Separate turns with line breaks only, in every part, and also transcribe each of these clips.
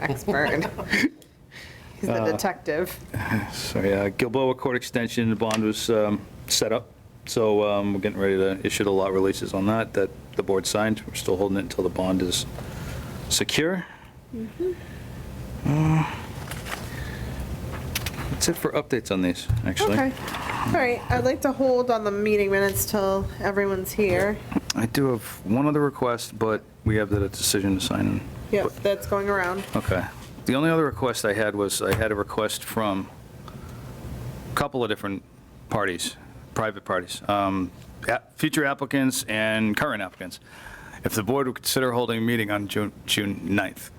expert. He's the
Uh,
detective.
Sorry, uh, Gilboa Court Extension, the bond was um, set up, so um, we're getting ready to issue the lot releases on that, that the board signed. We're still holding it until the bond is secure. Uh, That's it for updates on these, actually.
Okay. All right, I'd like to hold on the meeting minutes till everyone's here.
I do have one other request, but we have the decision to sign.
Yep, that's going around.
Okay. The only other request I had was, I had a request from a couple of different parties, private parties, um, ap- future applicants and current applicants, if the board would consider holding a meeting on June June 9th.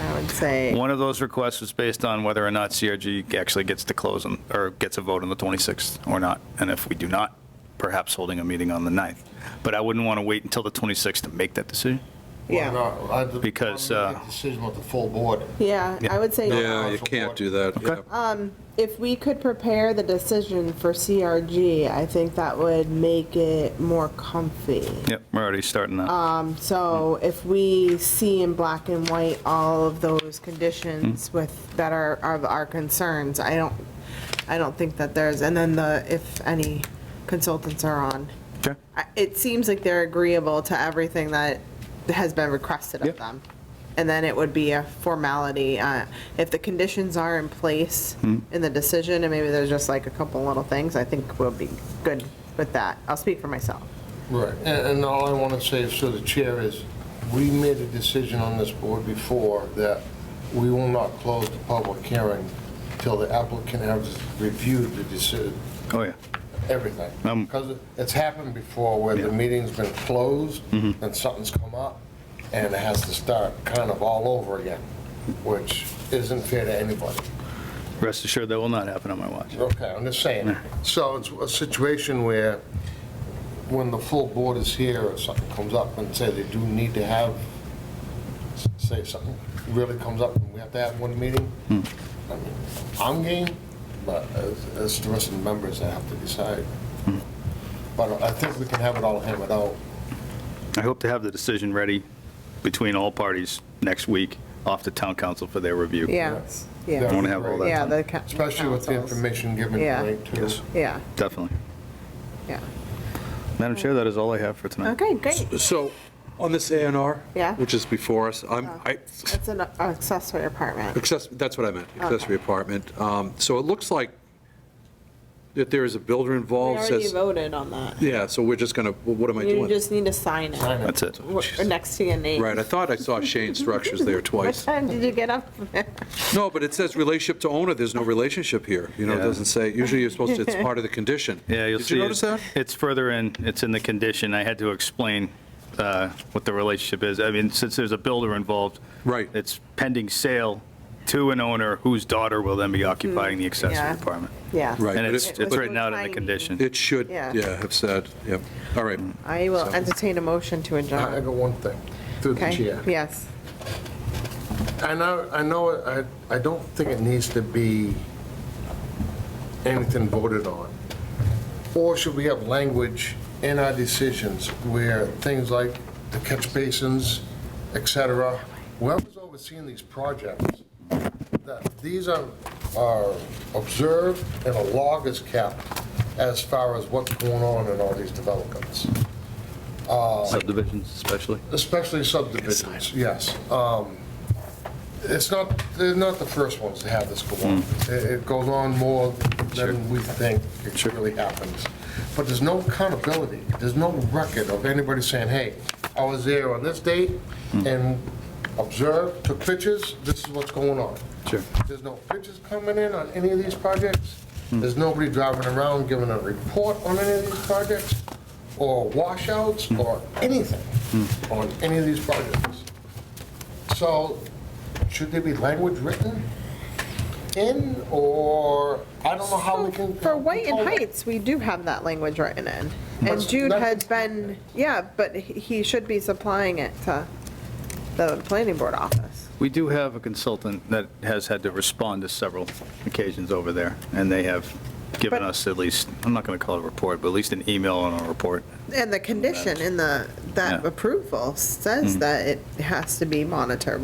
I would say,
One of those requests was based on whether or not CRG actually gets to close on, or gets a vote on the 26th or not. And if we do not, perhaps holding a meeting on the 9th. But I wouldn't want to wait until the 26th to make that decision.
Why
yeah,
not? I- the-
Because,
I'll make
uh,
a Decision with the full board.
yeah, I would say um,
Yeah, you can't do that.
Okay.
yeah.
if we could prepare the decision for CRG, I think that would make it more comfy.
Yep, we're already starting that.
So if we see in black and white all of those conditions with, that are, are our concerns, I don't, I don't think that there's, and then the, if any consultants are on.
Okay.
I- It seems like they're agreeable to everything that has been requested of
Yep.
them. And then it would be a formality, uh, if the conditions are in place in the decision, and maybe there's just like a couple little things, I think we'll be good with that. I'll speak for myself.
Right. And, and all I want to say is to the chair is, we made a decision on this board before that we will not close the public hearing till the applicant has reviewed the decision,
Oh, yeah.
everything.
Um,
Because it's happened before where the
Yeah. Mm-hmm.
meeting's been closed and something's come up and it has to start kind of all over again, which isn't fair to anybody.
Rest assured, that will not happen on my watch.
Okay, I'm just saying. So it's a situation where when the full board is here or something comes up and say they do need to have, say something really comes up and we have to have one meeting, I
Hmm.
mean, I'm game, but it's- it's the rest of the members that have to decide.
Hmm.
But I think we can have it all hammered out.
I hope to have the decision ready between all parties next week off to town council for their review.
Yeah, yeah.
That
I
would
want
be
to have all
great.
Yeah,
that done.
the. ca-
Especially with the
councils.
information given
Yeah.
tonight, too.
Yes.
Yeah,
Definitely.
yeah.
Madam Chair, that is all I have for tonight.
Okay, great.
So on this A and R,
Yeah. Uh-huh.
which is before us, I'm, I,
It's an accessory apartment.
access- that's what I meant, accessory apartment. Um, So it looks like that there is a builder
We
involved,
already
says,
voted on that.
yeah, so we're just gonna, well, what am I
You
doing?
just need to sign it,
Sign it.
That's it.
or or next to your name.
Right, I thought I saw Shane Structures there
What
twice.
time did you get up?
No, but it says relationship to owner, there's no relationship here. You know, it
Yeah.
doesn't say, usually you're supposed to, it's part of the condition.
Yeah, you'll see.
Did
it-
you notice that?
It's further in, it's in the condition. I had to explain uh, what the relationship is. I mean, since there's a builder involved.
Right.
It's pending sale to an owner whose daughter will then be occupying the accessory
Mm-hmm. yeah.
apartment.
Yeah.
Right.
And
but
it's,
it-
it's
but-
written out in the
Tiny.
condition.
It should,
Yeah.
yeah, have said, yep. All right.
I will entertain a motion to
I I
adjourn.
got one thing, through the
Okay,
chair.
yes.
I know, I know, I, I don't think it needs to be anything voted on. Or should we have language in our decisions where things like the catch basins, et cetera, whoever's overseeing these projects, that these are, are observed and a log is kept as far as what's going on in all these developments
Subdivisions especially.
especially subdivisions, yes. Um, It's not, they're not the first ones to have this go on. It it goes on more than we think it really happens. But there's no accountability, there's no record of anybody saying, hey, I was there on this date and observed, took pictures, this is what's going on.
Sure.
There's no pictures coming in on any of these projects. There's nobody driving around giving a report on any of these projects, or washouts, or anything on any of these projects. So should there be language written in, or, I don't know how we can.
For White and
control that.
Heights, we do have that language written in. And
But
Jude
that-
had been, yeah, but he he should be supplying it to the planning board office.
We do have a consultant that has had to respond to several occasions over there, and they have given
But-
us at least, I'm not going to call it a report, but at least an email on a report.
And the condition in the, that
Yeah.
approval says that it has to be monitorable.